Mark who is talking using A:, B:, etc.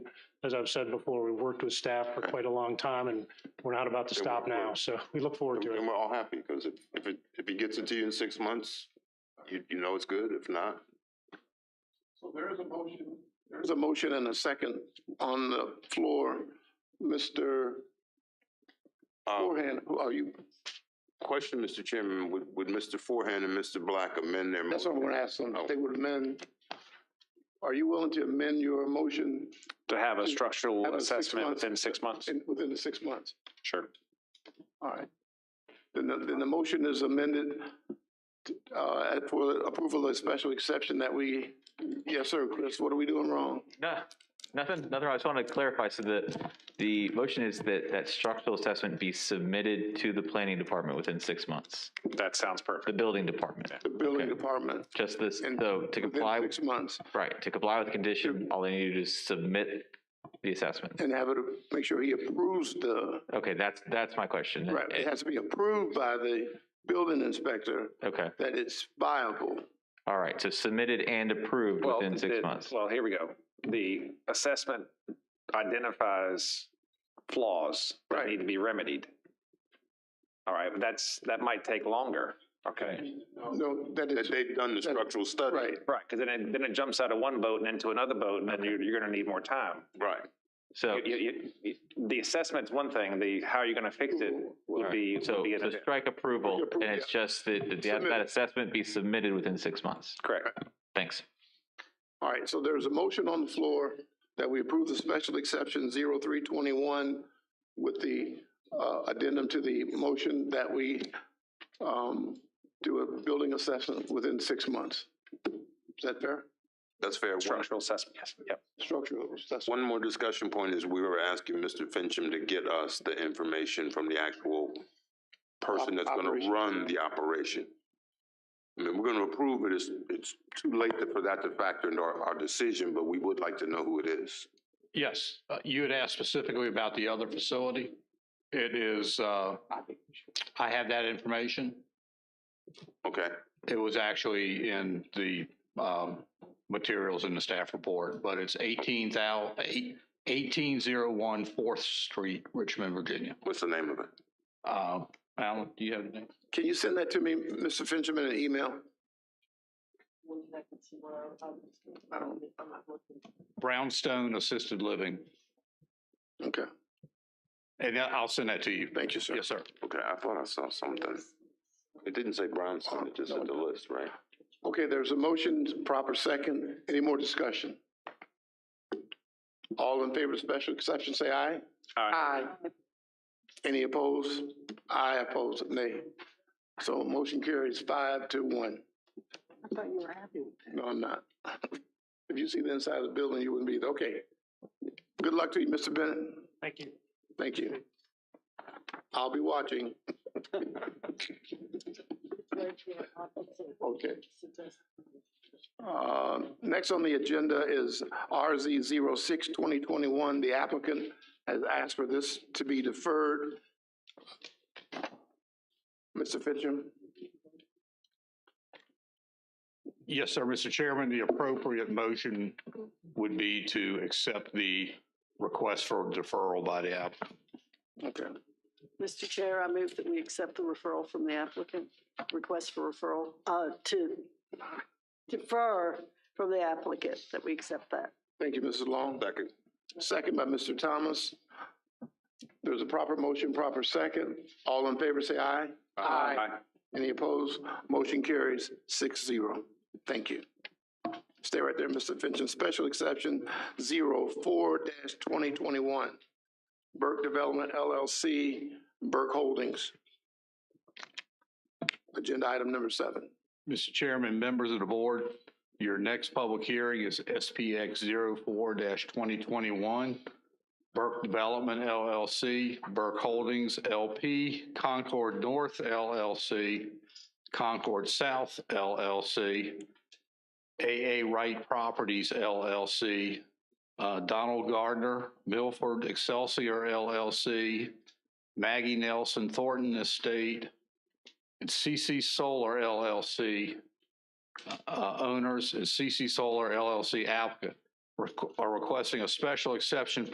A: as I've said before, we worked with staff for quite a long time and we're not about to
B: Yeah,
A: stop
B: we're-
A: now. So we look forward
B: And
A: to it.
B: and we're all happy, because if, if it, if it gets into you in six months, you, you know it's good, if not.
C: So there is a motion. There is a motion and a second on the floor. Mr.
D: Uh,
B: Um,
C: Forehand, who are you?
B: question, Mr. Chairman, would, would Mr. Forehand and Mr. Black amend their
C: That's what I'm
B: motion?
C: gonna ask them. If they would amend, are you willing to amend your motion
D: To have a
C: Have
D: structural
C: a six
D: assessment
C: months.
D: within six months?
C: in, within the six months?
D: Sure.
C: All right. Then the, then the motion is amended, uh, for approval of special exception that we, yes, sir, Chris, what are we doing wrong?
E: No, nothing, nothing. I just want to clarify. So the, the motion is that that structural assessment be submitted to the planning department within six months,
D: That sounds
E: the
D: perfect.
E: building department.
C: The building
E: Okay.
C: department,
E: Just this,
C: And
E: so to comply,
C: within six months,
E: right, to comply with the condition, all they need to do is submit the assessment.
C: and have it, make sure he approves the
E: Okay, that's, that's my question.
C: Right, it has to be approved by the building inspector
E: Eh, Okay,
C: that it's viable.
E: all right. So submitted and approved
D: Well,
E: within six
D: the-
E: months.
D: Well, here we go. The assessment identifies flaws that
C: Right.
D: need to be remedied. All right, but that's, that might take longer. Okay.
C: No, that
B: That
C: is,
B: they've done the structural study.
C: right,
D: Right, because then it, then it jumps out of one boat and into another boat, and then you're, you're going to need more time.
B: Right.
E: So.
D: You- you- you- The assessment's one thing, the, how are you going to fix it would
E: Alright,
D: be. would
E: So,
D: be an
E: so
D: event.
E: strike approval,
C: Appro-
E: and it's just that, that the- that
C: Submitted.
E: assessment be submitted within six months.
D: Correct.
E: Thanks.
C: all right, so there's a motion on the floor that we approve the special exception zero three twenty-one with the, uh, addendum to the motion that we, um, do a building assessment within six months. Is that fair?
B: That's fair. One-
D: Structural assessment, yes, yep.
C: Structural assessment,
B: One more discussion point is we were asking Mr. Fincham to get us the information from the actual person that's gonna
C: Operation.
B: run the operation. I mean, we're gonna approve it, it's, it's too late to- for that to factor into our, our decision, but we would like to know who it is.
F: Yes, uh, you had asked specifically about the other facility. It is, uh, I have that information.
B: Okay,
F: It was actually in the, um, materials in the staff report, but it's eighteen thou, eight, eighteen zero one Fourth Street, Richmond, Virginia.
B: what's the name of it?
F: Uh, Alan, do you have the name?
C: can you send that to me, Mr. Fincham, in an email? I don't,
F: Brownstone Assisted Living,
C: okay,
F: and I- I'll send that to you.
C: thank you, sir.
F: Yes, sir.
B: Okay, I thought I saw something. It didn't say Brownstone, it just said the list, right?
C: Okay, there's a motion, proper second. Any more discussion? All in favor of special exception, say aye. Aye. Any opposed? Aye opposed, nay. So motion carries five to one.
G: I thought you were happy with that.
C: No, I'm not. If you see the inside of the building, you wouldn't be, there. okay. Good luck to you, Mr. Bennett.
A: Thank you.
C: Thank you. I'll be watching. Okay. Uh, Next on the agenda is RZ 06-2021. The applicant has asked for this to be deferred. Mr. Fitchum,
F: Yes, sir, Mr. Chairman, the appropriate motion would be to accept the request for deferral by the applicant.
C: okay.
G: Mr. Chair, I move that we accept the referral from the applicant, request for referral, uh, to defer from the applicant, that we accept that.
C: Thank you, Mrs. Long.
B: Second.
C: Second by Mr. Thomas. There's a proper motion, proper second. All in favor, say aye. Aye. Any opposed? Motion carries six zero. Thank you. Stay right there, Mr. Fincham. Special exception zero four dash twenty twenty-one. Burke Development LLC, Burke Holdings. Agenda item number seven.
F: Mr. Chairman, members of the board, your next public hearing is SPX 04-2021, Burke Development LLC, Burke Holdings LP, Concord North LLC, Concord South LLC, AA Wright Properties LLC, uh, Donald Gardner, Milford Excelsior LLC, Maggie Nelson Thornton Estate, it's CC Solar LLC. Uh, owners is CC Solar LLC applicant requ- are requesting a special exception